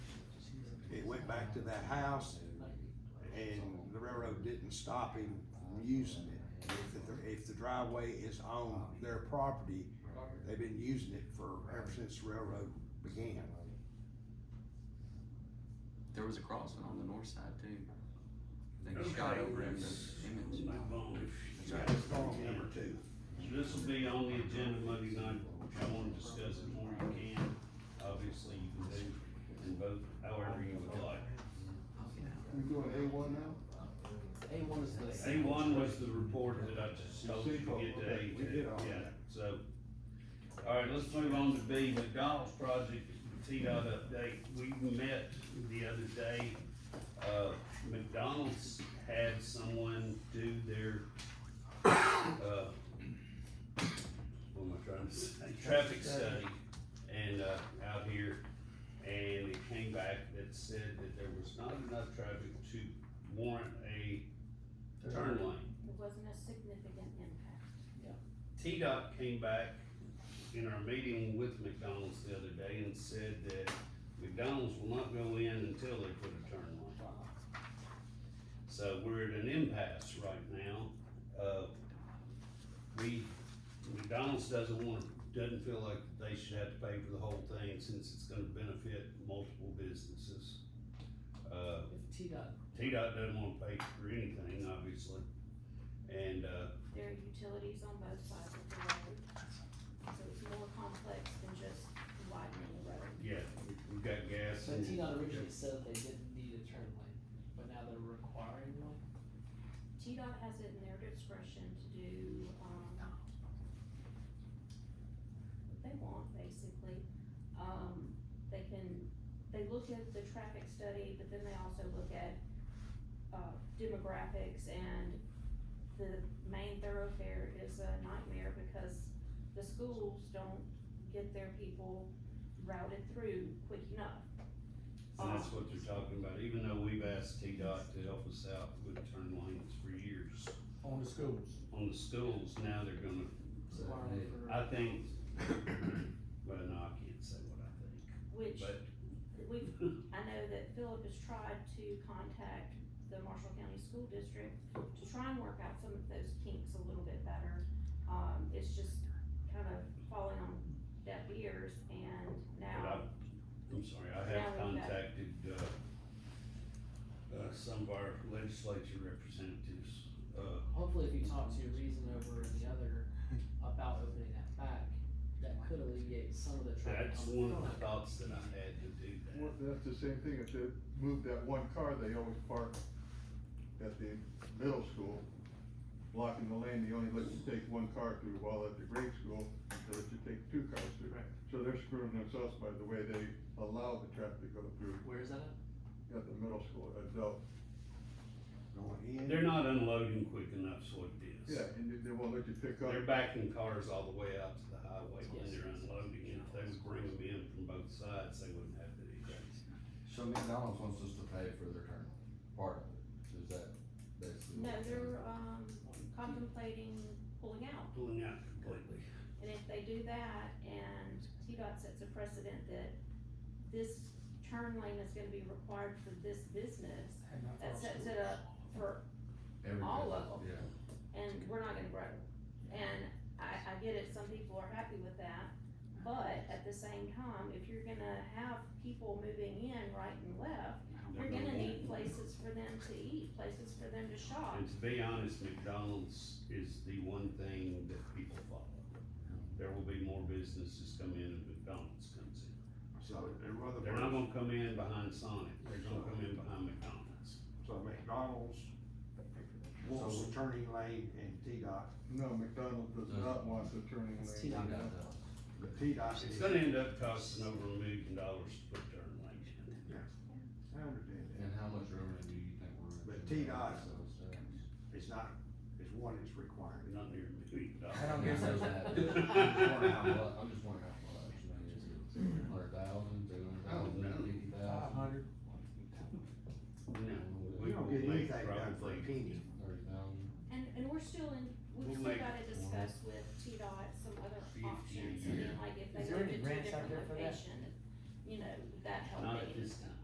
went back to that house and the railroad didn't stop him from using it. If the, if the driveway is on their property, they've been using it for, ever since the railroad began. There was a crossing on the north side too. They Okay, shot over in the let's image. move on if you So got that's problem number it. two. This will be on the agenda Monday night, if you wanna discuss it more, you can, obviously you can do and vote however you would like. We doing A one now? A one is the. A one was the report that I just told you to get to Okay, A we two, did all yeah, that. so. Alright, let's move on to B, McDonald's project, T-Dot update, we met the other day. Uh, McDonald's had someone do their, uh, what am I trying to say? Traffic study and, uh, out here. And it came back that said that there was not enough traffic to warrant a turn lane. It wasn't a significant impact. T-Dot came back in our meeting with McDonald's the other day and said that McDonald's will not go in until they put a turn lane. So we're at an impasse right now. Uh, we, McDonald's doesn't want, doesn't feel like they should have to pay for the whole thing since it's gonna benefit multiple businesses. Uh, If T dot, T-Dot doesn't wanna pay for anything, obviously. And, uh, There are utilities on both sides of the road, so it's more complex than just widening the road. Yeah, we- we've got gas. so and- T dot originally said they didn't need a turn lane, but now they're requiring one? TDOT has it in their discretion to do, um, what they want, basically. Um, they can, they look at the traffic study, but then they also look at, uh, demographics and the main thoroughfare is a nightmare because the schools don't get their people routed through quick enough. And that's what they're talking about, even though we've asked T-Dot to help us out with turn lanes for years on the schools. on the schools, now they're gonna, So why are they for- I think, well, no, I can't say what I think, Which but. we've I know that Philip has tried to contact the Marshall County School District to try and work out some of those kinks a little bit better. Um, it's just kind of falling on deaf ears and But now, I, I'm sorry, I Now have we've got- contacted, uh, uh, some of our legislature representatives, uh, Hopefully if you talk to Reason over and the other about opening that back, that could alleviate some of the traffic. that's on the one of front. the thoughts that I had to do that. Well, that's the same thing, if they move that one car, they always park at the middle school, blocking the lane, they only let you take one car through, while at the grade school, they let you take two cars through. Right. So they're screwing themselves by the way they allow the traffic to go through Where is that at? at the middle school, adult. Going in. They're not unloading quick enough, so it is. Yeah, and they- they won't let you pick up. They're backing cars all the way out to the highway when Yes. they're unloading, and if they would bring them in from both sides, they wouldn't have to do that. So McDonald's wants us to pay for their turn, part of it, is that, that's the. no, they're, um, contemplating pulling out. Pulling out completely. And if they do that and TDOT sets a precedent that this turn lane is gonna be required for this business, And not that all sets schools. it up for Every all business, of 'em. Yeah. and we're not gonna grow. And I, I get it, some people are happy with that, but at the same time, if you're gonna have people moving in right and left, you're gonna need places for them to eat, places for them to shop. And to be honest, McDonald's is the one thing that people follow. There will be more businesses come in if McDonald's comes in. So they're rather. They're not gonna come in behind Sonic, they're gonna come in behind McDonald's. So McDonald's wants the turning lane and T-Dot, No, McDonald's does not want the turning It's lane. T dot. but T-Dot is. It's gonna end up costing over a million dollars to put turn lanes in. I understand that. And how much revenue do you think we're? But generating T-Dot- ourselves there? It's not, it's one that's required. Not near a million dollars. I don't guess that's- I'm just wondering how mu- I'm just wondering how much, Oh, I mean, is it hundred thousand, two hundred thousand, fifty Five thousand, hundred. No, We don't get will anything make done for a probably- penny. thirty thousand? And, and we're still in, we've We'll still make- gotta discuss with T-Dot some other Fifty a options, I mean, year. like if Is they there any moved it to a grants out different there for that? location, you know, that Not helping. at this time.